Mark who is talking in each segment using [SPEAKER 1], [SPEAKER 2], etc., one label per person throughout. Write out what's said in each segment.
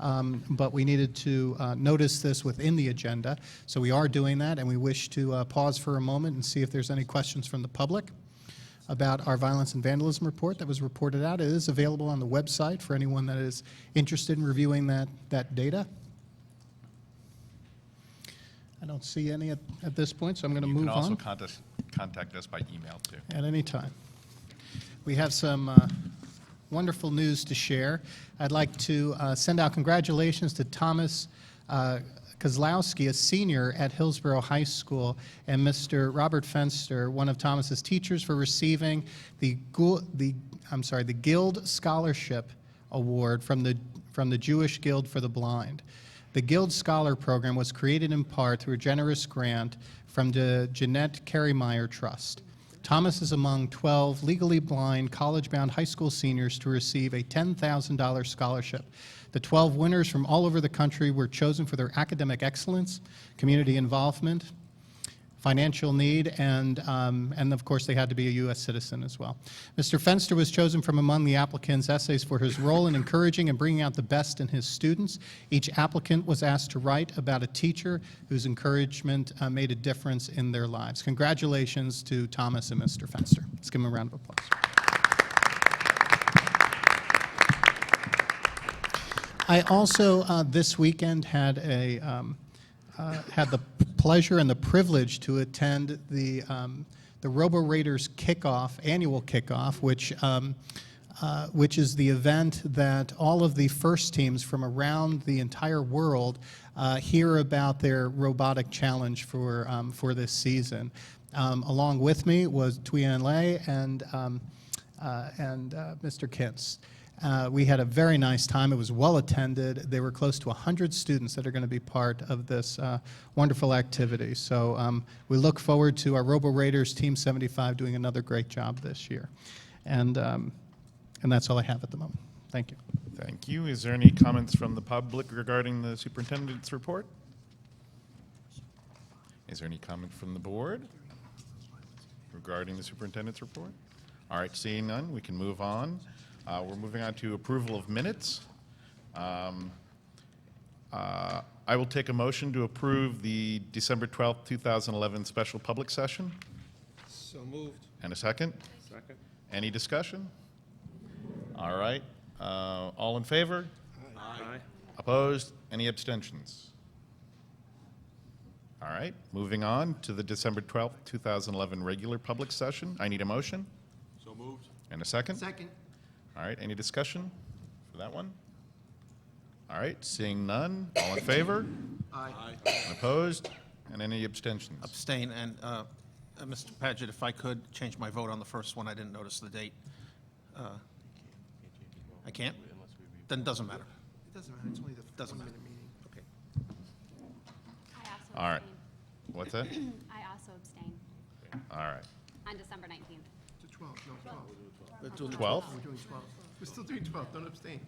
[SPEAKER 1] um, but we needed to uh, notice this within the agenda. So we are doing that, and we wish to uh, pause for a moment and see if there's any questions from the public about our violence and vandalism report that was reported out. It is available on the website for anyone that is interested in reviewing that, that data. I don't see any at, at this point, so I'm going to
[SPEAKER 2] You
[SPEAKER 1] move
[SPEAKER 2] can also
[SPEAKER 1] on
[SPEAKER 2] contact, contact us by email too.
[SPEAKER 1] at any time. We have some uh, wonderful news to share. I'd like to uh, send out congratulations to Thomas uh, Kozlowski, a senior at Hillsborough High School, and Mr. Robert Fenster, one of Thomas's teachers, for receiving the Gu- the I'm sorry the Guild Scholarship Award from the from the Jewish Guild for the Blind. The Guild Scholar Program was created in part through a generous grant from the Jeanette Careymeyer Trust. Thomas is among 12 legally blind, college bound high school seniors to receive a $10,000 scholarship. The 12 winners from all over the country were chosen for their academic excellence, community involvement, financial need, and, um, and of course, they had to be a U.S. citizen as well. Mr. Fenster was chosen from among the applicants' essays for his role in encouraging and bringing out the best in his students. Each applicant was asked to write about a teacher whose encouragement uh, made a difference in their lives. Congratulations to Thomas and Mr. Fenster. Let's give them a round of applause. I also, uh, this weekend, had a, um, uh, had the pleasure and the privilege to attend the, um, the Robo Raiders kickoff, annual kickoff, which, um, uh, which is the event that all of the first teams from around the entire world uh, hear about their robotic challenge for, um, for this season. Um, along with me was Tuyen Lei and, um, uh, and uh, Mr. Kintz. Uh, we had a very nice time. It was well attended. There were close to 100 students that are going to be part of this uh, wonderful activity. So um, we look forward to our Robo Raiders Team 75 doing another great job this year. And, um, and that's all I have at the moment. Thank you.
[SPEAKER 2] Thank you. Is there any comments from the public regarding the superintendent's report? Is there any comment from the board regarding the superintendent's report? All right, seeing none, we can move on. Uh, We're moving on to approval of minutes. Um, uh, I will take a motion to approve the December 12th, 2011 special public session.
[SPEAKER 3] So moved.
[SPEAKER 2] And a second?
[SPEAKER 3] Second.
[SPEAKER 2] Any discussion? All right, uh, all in favor?
[SPEAKER 3] Aye.
[SPEAKER 2] Opposed? Any abstentions? All right, moving on to the December 12th, 2011 regular public session. I need a motion
[SPEAKER 3] So moved.
[SPEAKER 2] and a second.
[SPEAKER 3] Second.
[SPEAKER 2] All right, any discussion for that one? All right, seeing none, all in favor?
[SPEAKER 3] Aye.
[SPEAKER 2] Opposed? And any abstentions?
[SPEAKER 4] Abstain, and uh, uh, Mr. Paget, if I could change my vote on the first one, I didn't notice the date. Uh, I can't? Then it doesn't matter.
[SPEAKER 3] It doesn't matter, it's only the
[SPEAKER 4] Doesn't matter.
[SPEAKER 3] one-minute meeting.
[SPEAKER 4] Okay.
[SPEAKER 5] I also
[SPEAKER 2] All right.
[SPEAKER 5] abstain.
[SPEAKER 2] What's that?
[SPEAKER 5] I also abstain
[SPEAKER 2] All right.
[SPEAKER 5] on December 19th.
[SPEAKER 3] To 12, no, 12.
[SPEAKER 4] Let's do-
[SPEAKER 2] 12?
[SPEAKER 3] We're doing 12. We're still doing 12, don't abstain.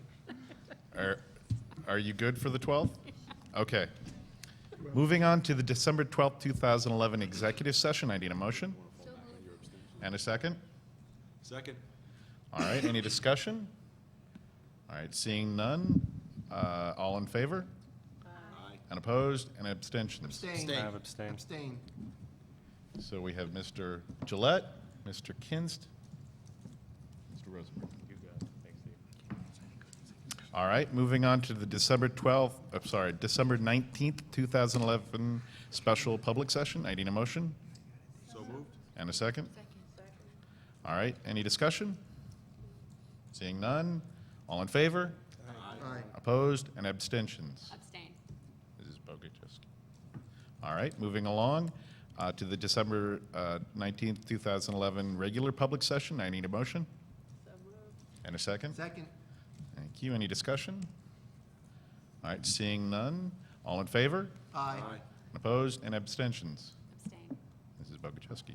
[SPEAKER 2] Are, are you good for the 12th? Okay. Moving on to the December 12th, 2011 executive session, I need a motion. And a second?
[SPEAKER 3] Second.
[SPEAKER 2] All right, any discussion? All right, seeing none, uh, all in favor?
[SPEAKER 3] Aye.
[SPEAKER 2] And opposed, and abstentions?
[SPEAKER 3] Abstain.
[SPEAKER 4] Abstain. I
[SPEAKER 6] have abstained.
[SPEAKER 3] Abstain.
[SPEAKER 2] So we have Mr. Gillette, Mr. Kinst, Mr. Rosenberg. All right, moving on to the December 12th, I'm sorry, December 19th, 2011 special public session. I need a motion
[SPEAKER 3] So moved.
[SPEAKER 2] and a second. All right, any discussion? Seeing none, all in favor?
[SPEAKER 3] Aye.
[SPEAKER 2] Opposed and abstentions?
[SPEAKER 5] Abstain.
[SPEAKER 2] Mrs. Bogachiski. All right, moving along uh, to the December uh, 19th, 2011 regular public session. I need a motion. And a second?
[SPEAKER 3] Second.
[SPEAKER 2] Thank you. Any discussion? All right, seeing none. All in favor?
[SPEAKER 3] Aye.
[SPEAKER 2] Opposed and abstentions?
[SPEAKER 5] Abstain.
[SPEAKER 2] Mrs. Bogachiski.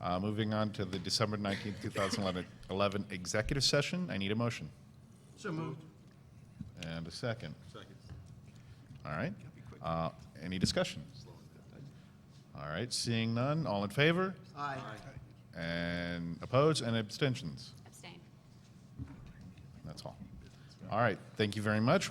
[SPEAKER 2] Uh, Moving on to the December 19th, 2011 11 executive session. I need a motion
[SPEAKER 3] So moved.
[SPEAKER 2] and a second.
[SPEAKER 3] Second.
[SPEAKER 2] All right. Uh, Any discussion? All right, seeing none, all in favor?
[SPEAKER 3] Aye.
[SPEAKER 2] And opposed and abstentions?
[SPEAKER 5] Abstain.
[SPEAKER 2] That's all. All right, thank you very much.